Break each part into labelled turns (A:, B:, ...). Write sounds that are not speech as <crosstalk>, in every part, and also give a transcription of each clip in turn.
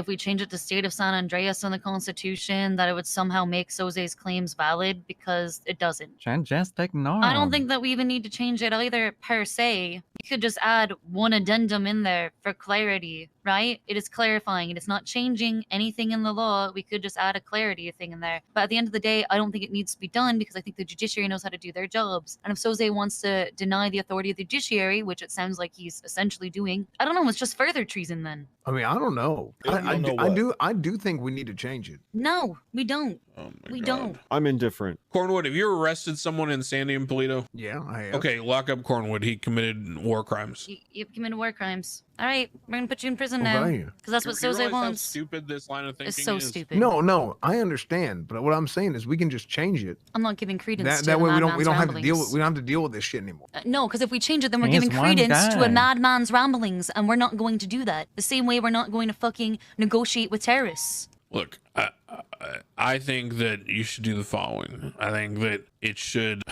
A: if we change it to state of San Andreas in the Constitution, that it would somehow make Soze's claims valid because it doesn't.
B: Jan- Just ignore.
A: I don't
B: him.
A: think that we even need to change it either per se. You could just add one addendum in there for clarity, right? It is clarifying. It is not changing anything in the law. We could just add a clarity thing in there. But at the end of the day, I don't think it needs to be done because I think the judiciary knows how to do their jobs. And if Soze wants to deny the authority of the judiciary, which it sounds like he's essentially doing, I don't know. It's just further treason then.
C: I mean, I don't know.
D: You don't
C: I, I,
D: know
C: do, I
D: what?
C: do. I do think we need to change it.
A: No, we don't.
D: Oh my
A: We
D: God.
A: don't.
E: I'm indifferent.
D: Cornwood, have you arrested someone in Sandy and Polito?
C: Yeah, I have.
D: Okay, lock up Cornwood. He committed war crimes.
A: You, you've committed war crimes. All right, we're gonna put you in prison now
C: Okay.
A: because that's
D: You-
A: what
D: you realize
A: Soze
D: how
A: wants.
D: Stupid. This line of thinking
A: It's so
D: is?
A: stupid.
C: No, no, I understand, but what I'm saying is we can just change it.
A: I'm not giving credence
C: That,
A: to
C: that
A: the
C: way we don't
A: madman's
C: we don't have to deal with
A: ramblings.
C: we don't have to deal with this shit anymore.
A: Uh, no, because if we change it, then we're
B: He is
A: giving
B: one
A: credence to
B: guy.
A: a madman's ramblings, and we're not going to do that. The same way we're not going to fucking negotiate with terrorists.
D: Look, I, I, I think that you should do the following. I think that it should.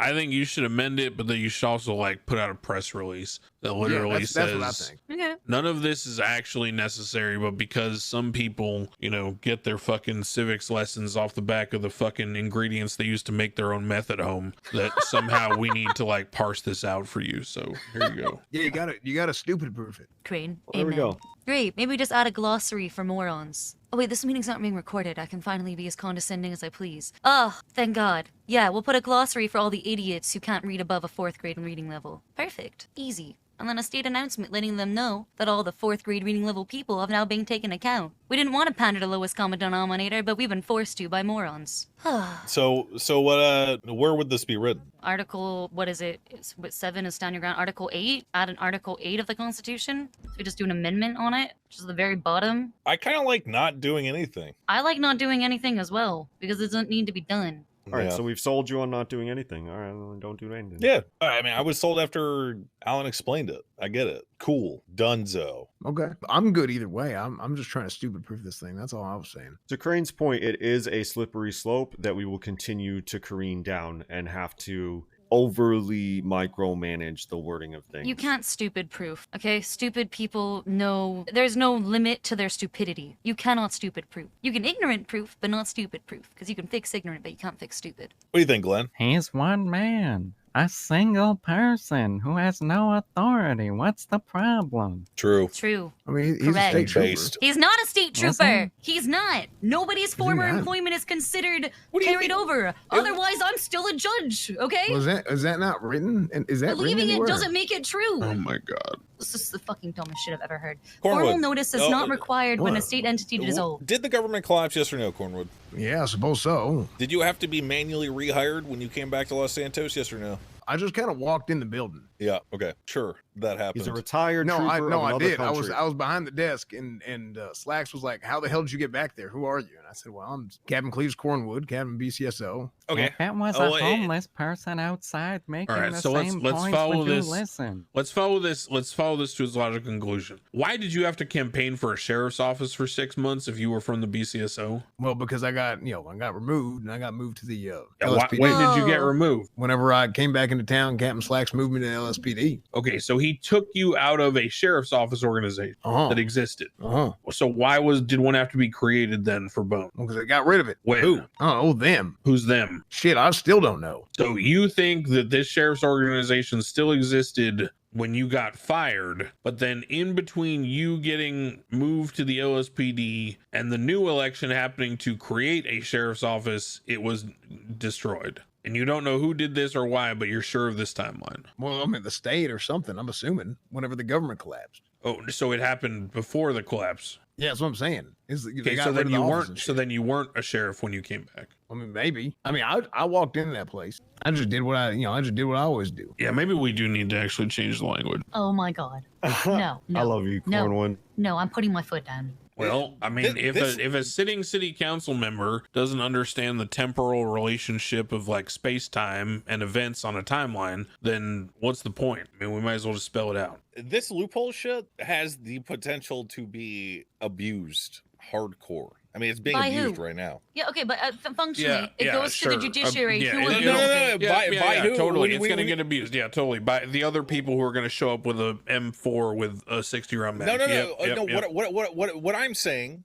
D: I think you should amend it, but then you should also like put out a press release that
C: Yeah,
D: literally
C: that's,
D: says
C: that's what I think.
A: Okay.
D: none of this is actually necessary, but because some people, you know, get their fucking civics lessons off the back of the fucking ingredients they use to make their own meth at home, that somehow we need to like parse this out for you. So here you go.
C: Yeah, you got to you got to stupid proof it.
A: Crane.
E: Well, there we
A: amen.
E: go.
A: Great. Maybe we just add a glossary for morons. Oh wait, this meeting's not being recorded. I can finally be as condescending as I please. Oh, thank God. Yeah, we'll put a glossary for all the idiots who can't read above a fourth grade reading level. Perfect. Easy. And then a state announcement letting them know that all the fourth grade reading level people have now been taken account. We didn't want to pander to lowest common denominator, but we've been forced to by morons. <sighs>
F: So so what uh where would this be written?
A: article what is it it's what seven is stand your ground article eight add an article eight of the constitution so we just do an amendment on it which is the very bottom
F: I kind of like not doing anything.
A: i like not doing anything as well because it doesn't need to be done
E: All right,
F: yeah.
E: so we've sold you on not doing anything. All right, well, don't do anything.
F: yeah, I mean, I was sold after Alan explained it. I get it. Cool. Dunzo.
C: Okay, I'm good either way. I'm I'm just trying to stupid proof this thing. That's all I was saying.
E: To Crane's point, it is a slippery slope that we will continue to careen down and have to overly micromanage the wording of things.
A: you can't stupid proof okay stupid people know there's no limit to their stupidity you cannot stupid proof you can ignorant proof but not stupid proof because you can fix ignorant but you can't fix stupid
F: What do you think, Glenn?
B: He's one man, a single person who has no authority. What's the problem?
F: True.
A: true
C: I mean, he- he's a
A: Correct.
C: state trooper.
F: Based.
A: he's not a state
B: Yes,
A: trooper he's not nobody's former
C: not?
A: employment is considered
F: What do you
A: carried
F: mean?
A: over otherwise i'm still a judge okay
C: Was that is that not written? And is that
A: Believing
C: written
A: it
C: anywhere?
A: doesn't make it true.
D: Oh my god.
A: this is the fucking dumbest shit I've ever heard. Formal
F: Cornwood.
A: notice is
F: Oh,
D: uh,
A: not required when a
C: what?
A: state entity
F: w-
A: dissolves.
F: Did the government collapse? Yes or no, Cornwood?
C: Yeah, I suppose so.
F: Did you have to be manually rehired when you came back to Los Santos? Yes or no?
C: I just kind of walked in the building.
F: Yeah. Okay. Sure. That happened.
E: He's a retired
C: No,
E: trooper
C: I no,
E: of
C: I
E: another
C: did. I was
E: country.
C: I was behind the desk, and and uh, Slacks was like, "How the hell did you get back there? Who are you?" And I said, "Well, I'm Captain Cleves Cornwood, Captain BCSO."
F: okay.
B: If it was
F: Oh,
B: a
F: eh.
B: homeless person outside making
D: right,
B: the
D: so let's-
B: same
D: let's
B: points,
D: follow
B: would you
D: this.
B: listen?
D: Let's follow this. Let's follow this to its logical conclusion. Why did you have to campaign for a sheriff's office for six months if you were from the BCSO?
C: Well, because I got you know I got removed, and I got moved to the uh,
D: Yeah, Why,
C: LSPD.
D: when did you get
A: Whoa.
D: removed?
C: Whenever I came back into town, Captain Slacks moved me to LSPD.
D: Okay, so he took you out of a sheriff's office organization
C: Uh huh.
D: that existed.
C: Uh huh.
D: So why was did one have to be created then for Bone?
C: Because they got rid of it.
D: When?
C: Who? Oh, oh, them.
D: Who's them?
C: Shit, I still don't know.
D: So you think that this sheriff's organization still existed when you got fired, but then in between you getting moved to the LSPD and the new election happening to create a sheriff's office, it was destroyed. And you don't know who did this or why, but you're sure of this timeline.
C: Well, I mean the state or something. I'm assuming whenever the government collapsed.
D: Oh, so it happened before the collapse.
C: Yeah, that's what I'm saying. Is that they
D: Okay,
C: got
D: so
C: rid
D: then
C: of the
D: you
C: office
D: weren't
C: and
D: so
C: shit.
D: then you weren't a sheriff when you came back.
C: I mean, maybe. I mean, I I walked into that place. I just did what I you know I just did what I always do.
D: Yeah, maybe we do need to actually change the language.
A: Oh my god. <laughs> No, no.
E: I love you,
A: No.
E: Cornwood.
A: No, I'm putting my foot down.
D: Well, I mean,
F: Thi-
D: if
F: this-
D: a if a sitting city council member doesn't understand the temporal relationship of like space time and events on a timeline, then what's the point? I mean, we might as well just spell it out.
F: This loophole shit has the potential to be abused hardcore. I mean, it's being
A: By who?
F: abused right now.
A: yeah, okay, but uh, f- functionally,
D: Yeah,
A: it
D: yeah,
A: goes
D: sure.
A: to the
D: Um,
A: judiciary.
D: yeah,
A: who
D: it-
A: would
D: No,
A: be
D: no, no,
F: no, By- by who?
D: totally.
F: We-
D: it's
F: we-
D: going to
F: we-
D: get abused. Yeah, totally. By the other people who are going to show up with a M4 with a 60 round mag.
F: No, no, no,
D: Yep,
F: uh,
D: yep,
F: no.
D: yep.
F: What, what, what, what, what I'm saying